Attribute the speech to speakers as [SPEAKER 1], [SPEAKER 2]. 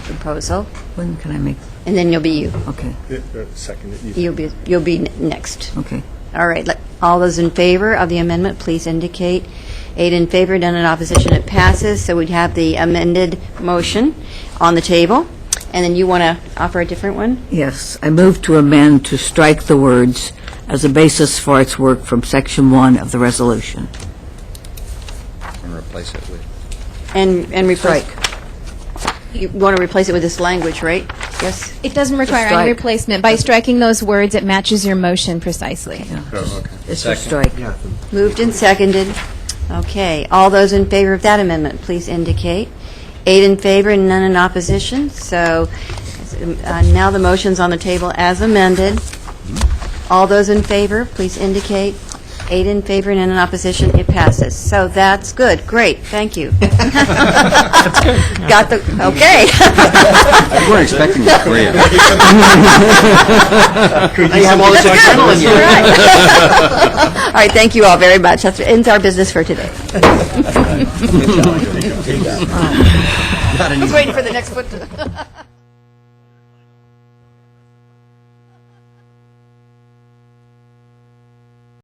[SPEAKER 1] proposal,
[SPEAKER 2] When can I make,
[SPEAKER 1] and then you'll be you.
[SPEAKER 2] okay,
[SPEAKER 3] Second.
[SPEAKER 1] You'll be, you'll be n- next.
[SPEAKER 2] okay.
[SPEAKER 1] All right, let- all those in favor of the amendment, please indicate. Eight in favor, none in opposition, it passes. So we'd have the amended motion on the table, and then you want to offer a different one?
[SPEAKER 2] Yes, I move to amend to strike the words "as a basis for its work" from Section 1 of the resolution.
[SPEAKER 4] and replace it with.
[SPEAKER 1] And, and replace... You want to replace it with this language, right? Yes?
[SPEAKER 5] It doesn't require any
[SPEAKER 2] Strike.
[SPEAKER 5] replacement. By striking those words, it matches your motion precisely.
[SPEAKER 2] It's a strike.
[SPEAKER 1] Moved and seconded. Okay, all those in favor of that amendment, please indicate. Eight in favor and none in opposition, so uh, now the motion's on the table as amended. All those in favor, please indicate. Eight in favor and none in opposition, it passes. So that's good, great, thank you. Got the, okay.
[SPEAKER 4] We weren't expecting that, were you?
[SPEAKER 3] you have all this adrenaline
[SPEAKER 1] All right. All right, thank you all very much. That ends our business for today. Just waiting for the next foot to...